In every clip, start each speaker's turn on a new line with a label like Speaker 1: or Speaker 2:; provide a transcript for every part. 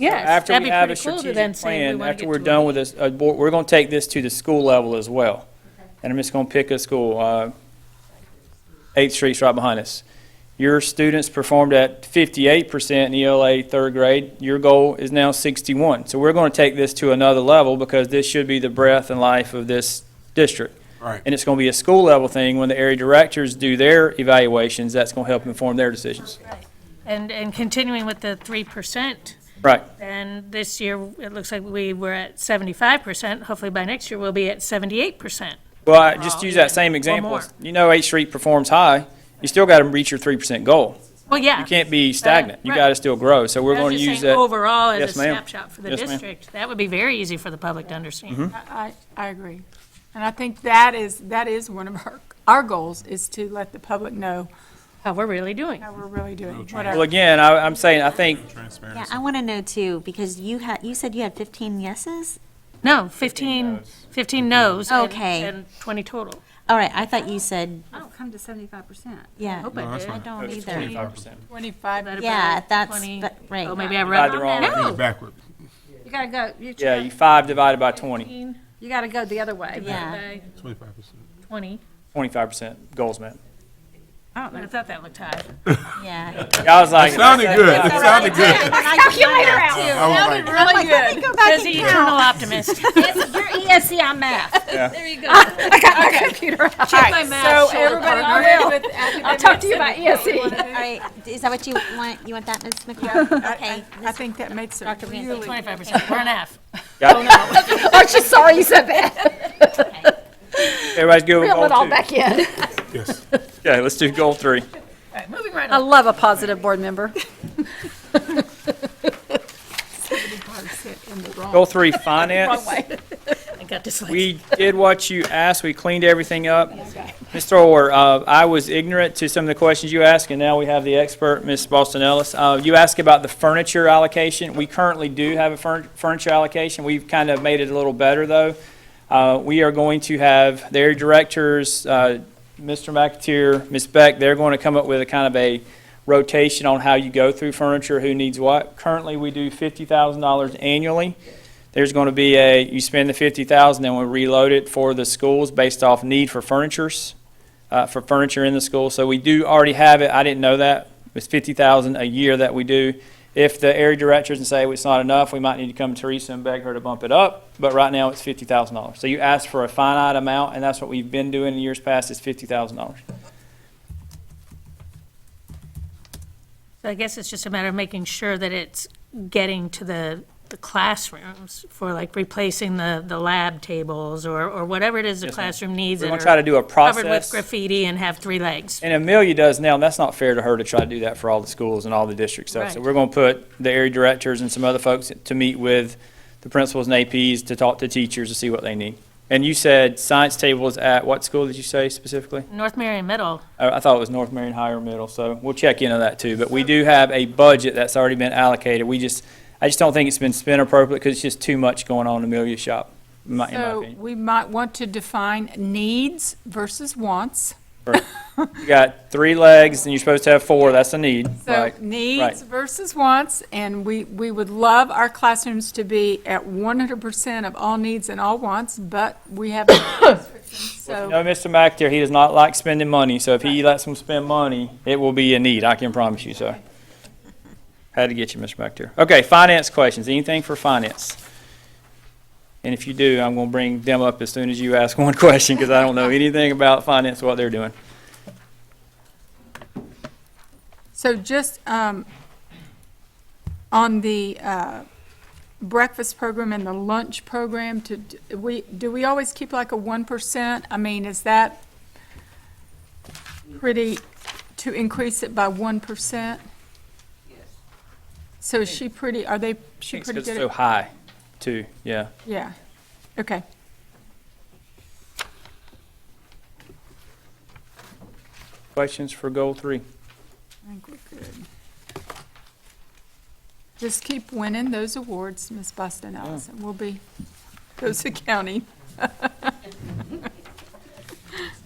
Speaker 1: Yes,
Speaker 2: After
Speaker 1: that'd
Speaker 2: we
Speaker 1: be
Speaker 2: have a
Speaker 1: pretty cool to
Speaker 2: strategic
Speaker 1: then say we
Speaker 2: plan,
Speaker 1: want
Speaker 2: after
Speaker 1: to
Speaker 2: we're
Speaker 1: get to a
Speaker 2: done with this, uh, board- we're going to take this to the school level as well. And I'm just going to pick a school, uh, Eighth Street's right behind us. Your students performed at fifty-eight percent in ELA third grade. Your goal is now sixty-one. So we're going to take this to another level because this should be the breath and life of this district.
Speaker 3: Right.
Speaker 2: And it's going to be a school level thing. When the area directors do their evaluations, that's going to help inform their decisions.
Speaker 1: And, and continuing with the three percent,
Speaker 2: Right.
Speaker 1: then this year, it looks like we were at seventy-five percent. Hopefully by next year, we'll be at seventy-eight percent.
Speaker 2: Well, I just
Speaker 1: Oh,
Speaker 2: use
Speaker 1: yeah.
Speaker 2: that same
Speaker 1: Or
Speaker 2: example.
Speaker 1: more.
Speaker 2: You know Eighth Street performs high, you still got to reach your three percent goal.
Speaker 1: Well, yeah.
Speaker 2: You can't be stagnant. You
Speaker 1: right.
Speaker 2: got to still grow. So we're
Speaker 1: I was
Speaker 2: going to
Speaker 1: just
Speaker 2: use
Speaker 1: saying
Speaker 2: that.
Speaker 1: Overall, as a
Speaker 2: Yes, ma'am.
Speaker 1: snapshot for the
Speaker 2: Yes, ma'am. Mm-hmm.
Speaker 1: district, that would be very easy for the public to understand.
Speaker 4: I, I I agree. And I think that is, that is one of our, our goals, is to let the public know
Speaker 1: How we're really doing.
Speaker 4: how we're really doing, what
Speaker 2: Well,
Speaker 4: our
Speaker 2: again, I, I'm saying, I think,
Speaker 3: Transparency.
Speaker 5: Yeah, I want to know too, because you had, you said you had 15 yeses?
Speaker 1: No, fifteen, fifteen no's. and-
Speaker 5: Okay.
Speaker 1: And twenty total.
Speaker 5: All right, I thought you said,
Speaker 6: I've come to seventy-five percent.
Speaker 5: yeah,
Speaker 1: Hope
Speaker 2: Uh-huh.
Speaker 1: I did.
Speaker 5: I don't either.
Speaker 2: twenty-five percent.
Speaker 4: 25,
Speaker 1: That'd
Speaker 5: Yeah,
Speaker 1: be
Speaker 5: that's,
Speaker 1: 20.
Speaker 5: but, right.
Speaker 1: Oh, maybe I
Speaker 2: Divide the
Speaker 1: read.
Speaker 2: wrong.
Speaker 6: No.
Speaker 3: Backward.
Speaker 6: You gotta go, you,
Speaker 2: Yeah, you five divided by twenty.
Speaker 1: Fifteen
Speaker 6: you gotta go the other way.
Speaker 5: Yeah,
Speaker 1: by
Speaker 3: Twenty-five percent.
Speaker 1: Twenty.
Speaker 2: Twenty-five percent goals met.
Speaker 1: I don't know. I thought that looked high.
Speaker 5: yeah.
Speaker 2: I was like,
Speaker 3: Sounded good. It sounded good.
Speaker 5: Calculator
Speaker 3: I was like,
Speaker 6: Really good.
Speaker 1: Says the eternal optimist.
Speaker 6: Your
Speaker 1: E
Speaker 6: ESC on math.
Speaker 1: There you go. I got my computer Check my math,
Speaker 4: so everybody with
Speaker 6: I'll talk to you about ESC.
Speaker 5: All right, is that what you want? You want that, Ms. McCall? Okay.
Speaker 4: I think that makes it really.
Speaker 1: Twenty-five percent, we're an F.
Speaker 2: got-
Speaker 6: I'm just sorry you said that.
Speaker 2: everybody's good with
Speaker 6: Fill
Speaker 2: goal
Speaker 6: it all
Speaker 2: two.
Speaker 6: back in.
Speaker 3: yes.
Speaker 2: Okay, let's do goal three.
Speaker 1: Moving right
Speaker 6: I
Speaker 1: on.
Speaker 6: love a positive board member.
Speaker 2: Goal three, finance.
Speaker 1: I got this.
Speaker 2: We did what you asked, we cleaned everything up. Mr. Orr, uh, I was ignorant to some of the questions you asked, and now we have the expert, Ms. Boston Ellis. Uh, You asked about the furniture allocation. We currently do have a furn- furniture allocation. We've kind of made it a little better, though. Uh, We are going to have their directors, uh, Mr. McAteer, Ms. Beck, they're going to come up with a kind of a rotation on how you go through furniture, who needs what. Currently, we do $50,000 annually there's going to be a, you spend the fifty thousand, then we reload it for the schools based off need for furnitures, uh, for furniture in the school. So we do already have it. I didn't know that. It's fifty thousand a year that we do. If the area directors and say it's not enough, we might need to come to Teresa and beg her to bump it up. But right now, it's fifty thousand dollars. So you ask for a finite amount, and that's what we've been doing in years past, is fifty thousand dollars.
Speaker 1: So I guess it's just a matter of making sure that it's getting to the, the classrooms for like replacing the, the lab tables or, or whatever it is the
Speaker 2: Yes, ma'am.
Speaker 1: classroom needs
Speaker 2: We're
Speaker 1: that
Speaker 2: going to try to
Speaker 1: are
Speaker 2: do a
Speaker 1: covered with
Speaker 2: process.
Speaker 1: graffiti and have three legs.
Speaker 2: And Amelia does now, and that's not fair to her to try to do that for all the schools and all the district stuff. So
Speaker 1: Right.
Speaker 2: we're going to put the area directors and some other folks to meet with the principals and APs to talk to teachers to see what they need. And you said science tables at what school did you say specifically?
Speaker 1: North Marion Middle,
Speaker 2: I I thought it was North Marion Higher Middle, so we'll check into that too. But we do have a budget that's already been allocated. We just, I just don't think it's been spent appropriately because it's just too much going on in Amelia's shop, in my in my
Speaker 4: So
Speaker 2: opinion.
Speaker 4: we might want to define needs versus wants.
Speaker 2: You got three legs and you're supposed to have four, that's a need,
Speaker 4: So
Speaker 2: right?
Speaker 4: needs
Speaker 2: right.
Speaker 4: versus wants, and we, we would love our classrooms to be at 100% of all needs and all wants, but we have restrictions, so.
Speaker 2: No, Mr. McAteer, he does not like spending money, so if he lets him spend money, it will be a need, I can promise you, so. Had to get you, Mr. McAteer. Okay, finance questions, anything for finance? And if you do, I'm gonna bring them up as soon as you ask one question, because I don't know anything about finance, what they're doing.
Speaker 4: So just um, on the uh, breakfast program and the lunch program, to, do we, do we always keep like a 1%? I mean, is that pretty, to increase it by 1%? Yes. So is she pretty, are they, she
Speaker 2: It's
Speaker 4: pretty
Speaker 2: it's
Speaker 4: good?
Speaker 2: so
Speaker 4: at-
Speaker 2: high, too, yeah.
Speaker 4: Yeah, okay.
Speaker 2: Questions for goal three?
Speaker 4: I think we're good. Just keep winning those awards, Miss Boston Allison. We'll be, those accounting.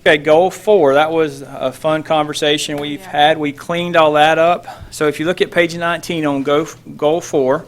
Speaker 2: Okay, goal four, that was a fun conversation we've
Speaker 4: Yeah.
Speaker 2: had. We cleaned all that up. So if you look at page 19 on go- goal four,